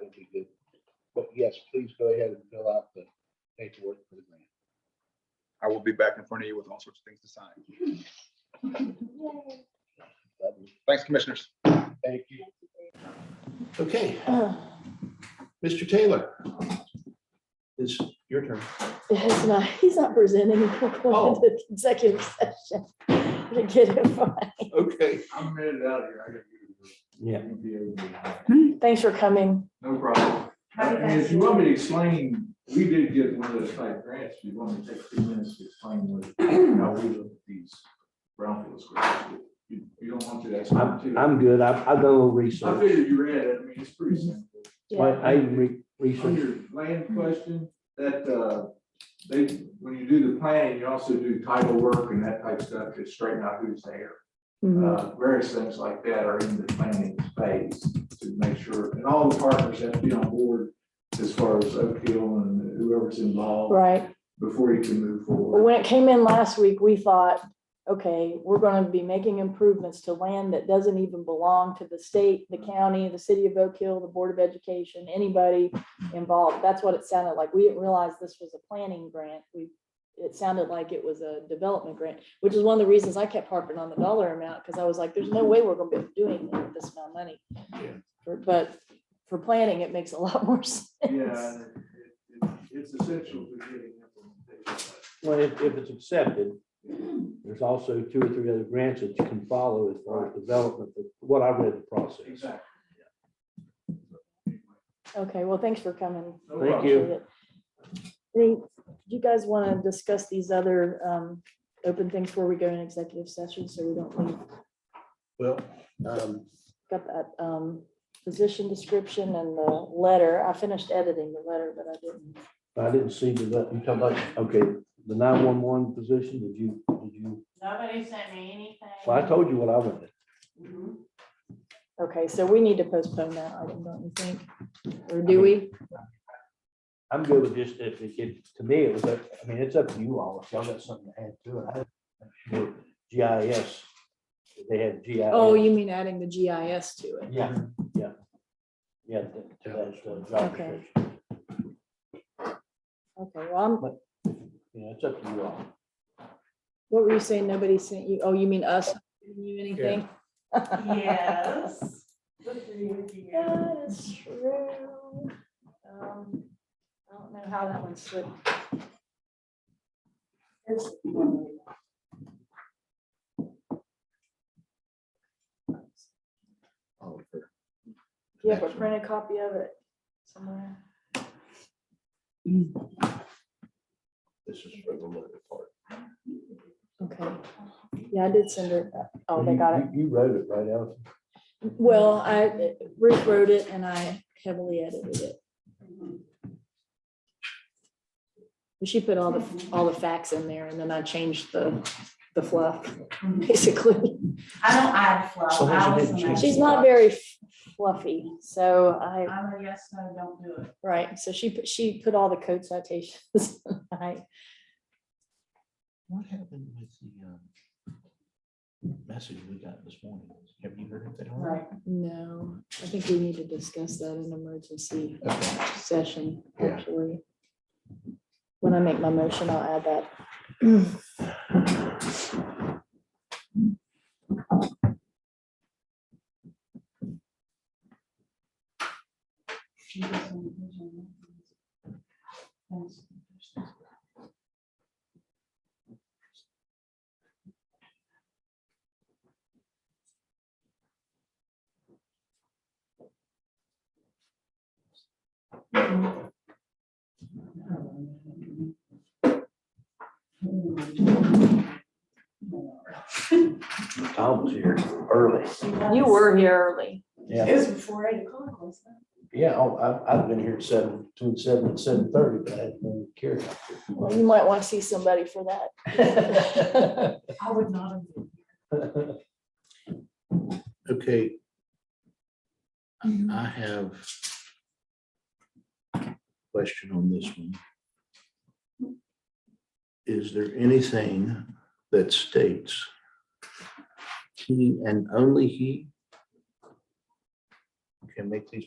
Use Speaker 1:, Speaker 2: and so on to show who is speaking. Speaker 1: would be good. But yes, please go ahead and fill out the paperwork for the grant.
Speaker 2: I will be back in front of you with all sorts of things to sign.
Speaker 1: Lovely.
Speaker 2: Thanks, commissioners.
Speaker 1: Thank you.
Speaker 3: Okay.
Speaker 4: Uh,
Speaker 3: Mr. Taylor. It's your turn.
Speaker 4: It's not, he's not presenting, we're going
Speaker 3: Oh.
Speaker 4: to the executive session to get him fine.
Speaker 3: Okay.
Speaker 5: I'm headed out of here. I gotta
Speaker 3: Yeah.
Speaker 5: get to the UPA.
Speaker 4: Thanks for coming.
Speaker 5: No problem. I mean, if you want me to explain, we did get one of those type grants. If you want me to take two minutes to explain what, how we look at these brownfields. grants, You, you don't want to, that's not too.
Speaker 6: I'm, I'm good. I've, I've done a little
Speaker 5: I
Speaker 6: research.
Speaker 5: figured you read it. I mean, it's pretty simple.
Speaker 6: I,
Speaker 4: Yeah,
Speaker 6: I even re-
Speaker 5: On
Speaker 6: researched.
Speaker 5: your land question, that, uh, they, when you do the planning, you also do title work and that type stuff to straighten out who's there.
Speaker 4: Mhm.
Speaker 5: Uh, various things like that are in the planning phase to make sure, and all the partners have to be on board as far as Oak Hill and whoever's involved
Speaker 4: Right.
Speaker 5: before you can move
Speaker 4: Well,
Speaker 5: forward.
Speaker 4: When it came in last week, we thought, okay, we're going to be making improvements to land that doesn't even belong to the state, the county, the city of Oak Hill, the Board of Education, anybody involved. That's what it sounded like. We didn't realize this was a planning grant. We, it sounded like it was a development grant, which is one of the reasons I kept harping on the dollar amount, because I was like, there's no way we're going to be doing this amount of money. For- But for planning, it makes a lot more sense.
Speaker 5: Yeah, and it- it- it's essential to getting implementation.
Speaker 6: Well, if, if it's accepted, there's also two or three other grants that you can follow as far as development, but what I read the process.
Speaker 5: Exactly.
Speaker 4: Okay, well, thanks for coming.
Speaker 5: No
Speaker 6: Thank
Speaker 5: problem.
Speaker 6: you.
Speaker 4: appreciate it. I think, do you guys want to discuss these other um, open things before we go in executive session, so we don't leave?
Speaker 3: Well, um,
Speaker 4: Got that um, position description and the letter. I finished editing the letter, but I didn't.
Speaker 6: I didn't see the, you talking about, okay, the nine-one-one position, did you, did you,
Speaker 7: Nobody sent me anything.
Speaker 6: well, I told you what I wanted.
Speaker 7: Mhm.
Speaker 4: Okay, so we need to postpone that item, don't you think? Or do we?
Speaker 6: I'm good with just, if, it- if, to me, it was, up- I mean, it's up to you all, if y'all got something to add to it. I didn't- GIS, they had GIS.
Speaker 4: Oh, you mean adding the GIS to it?
Speaker 6: Yeah, yeah. Yeah. th- to that, uh, job
Speaker 4: Okay.
Speaker 6: description.
Speaker 4: Okay, well, I'm-
Speaker 6: You know, it's up to you all.
Speaker 4: what were you saying? Nobody sent you? Oh, you mean us? sending You anything?
Speaker 7: Yes. Good for you, dear.
Speaker 4: That is true. Um, I don't know how that one slipped.
Speaker 7: It's-
Speaker 3: Oh,
Speaker 4: Do you have a printed copy of it somewhere?
Speaker 3: this is for the lower part.
Speaker 4: Okay. Yeah, I did send it. Oh, they got it.
Speaker 6: You you wrote it, right, Allison?
Speaker 4: Well, I, Ruth wrote it and I heavily edited it.
Speaker 7: Mm-hmm.
Speaker 4: But She put all the, all the facts in there and then I changed the, the fluff, basically.
Speaker 7: I don't add fluff.
Speaker 6: So how's it
Speaker 7: I was
Speaker 6: been
Speaker 7: an
Speaker 6: changed?
Speaker 4: She's
Speaker 7: add-
Speaker 4: not very fluffy, so I,
Speaker 7: I'm a yes, no, don't do it.
Speaker 4: right, so she, put she put all the code citations. I-
Speaker 8: What happened with the um, message we got this morning? Have you heard anything? on it?
Speaker 7: Right.
Speaker 4: No, I think we need to discuss that in emergency session,
Speaker 3: Yeah.
Speaker 4: actually. When I make my motion, I'll add that.
Speaker 6: Tom was here early.
Speaker 4: You were here early.
Speaker 6: Yeah,
Speaker 7: It was before eight o'clock, wasn't it?
Speaker 6: yeah, oh, I've, I've been here at seven, between seven and seven thirty, but I hadn't been carried.
Speaker 4: Well, you might want to see somebody for that.
Speaker 7: I would not have. been.
Speaker 3: Okay,
Speaker 8: I have a question on this one. Is there anything that states he and only he can make these